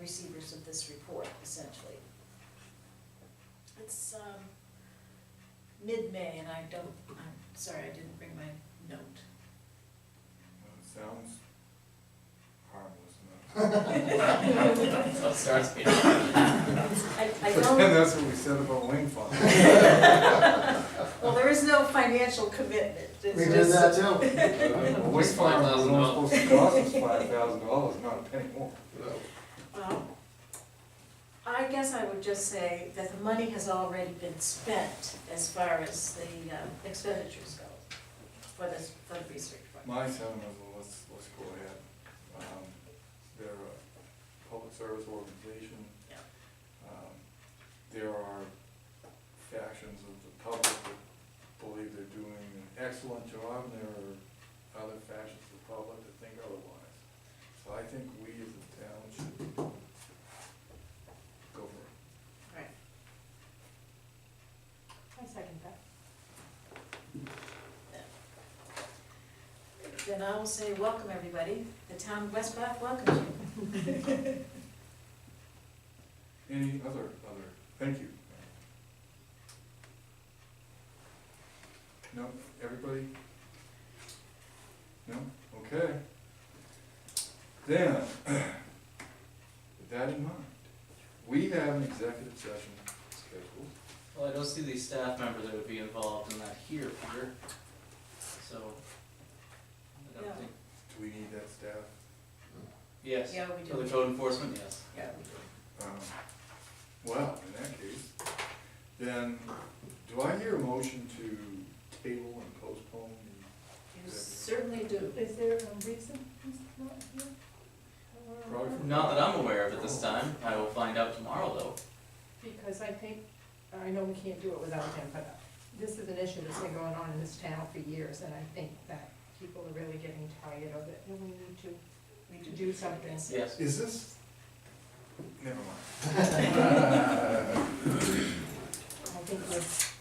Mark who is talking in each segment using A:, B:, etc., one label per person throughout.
A: receivers of this report, essentially. It's, um, mid-May, and I don't, I'm sorry, I didn't bring my note.
B: Well, it sounds harmless
A: I,
B: enough.
C: Starts being-
A: I
B: But then
A: don't,
B: that's what we said about wing farm.
A: well, there is no financial commitment, it's
D: We
A: just.
D: did that too.
B: Well, Wing farm was only supposed to cost us five thousand dollars, not a penny more.
A: Well, I guess I would just say that the money has already been spent as far as the um, expenditures go for this, for the research project.
B: My sentiment is, well, let's, let's go ahead. Um, They're a public service organization.
A: Yeah.
B: Um, There are factions of the public that believe they're doing an excellent job, and there are other factions of the public that think otherwise. So I think we as a town should go for it.
A: Right.
E: I second that.
A: Then I will say, welcome everybody, the town of West Bath welcomes you.
B: Any other, other, thank you. No, everybody? No, okay. Then, with that in mind, we have an executive session scheduled.
C: Well, I don't see the staff member that would be involved in that here, Peter. So, I
A: Yeah.
C: don't think,
B: Do we need that staff?
C: yes.
A: Yeah, we
C: For the
A: do.
C: code enforcement, yes.
A: Yeah.
B: Um, Well, in that case, then, do I hear a motion to table and postpone
A: You certainly do.
E: Is there a reason he's not here?
B: the,
A: Uh-huh.
B: probably? for-
C: Not that I'm aware of at this time. I will find out tomorrow, though.
E: Because I think, I know we can't do it without him, but this is an issue that's been going on in this town for years, and I think that people are really getting tired of it, and we need to
A: We
E: to do something.
C: Yes.
B: Is this? Never mind.
E: I think we've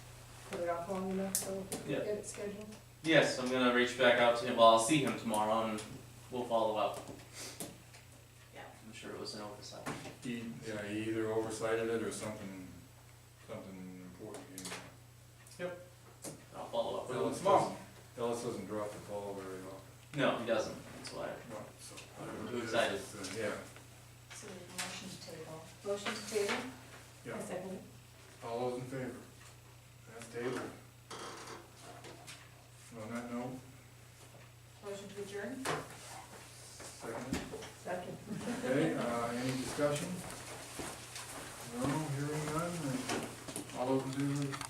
E: put it off long enough, so if we
C: Yeah.
E: get it scheduled.
C: Yes, I'm gonna reach back out to him. Well, I'll see him tomorrow and we'll follow up.
A: Yeah.
C: I'm sure it was an oversight.
B: He, yeah, he either oversighted it or something, something important. came up.
C: I'll follow up with him
B: Ellis
C: tomorrow.
B: doesn't, Ellis doesn't drop the ball very often.
C: No, he doesn't. That's why.
B: No, so-
C: I'm too excited.
B: uh, Yeah,
A: So motion to table. Motion to table?
B: yeah,
E: I second it.
B: all those in favor? That's David. On that note,
A: Motion to adjourn?
B: second,
E: Second.
B: okay, uh, any discussion? No, hearing none, all those in favor,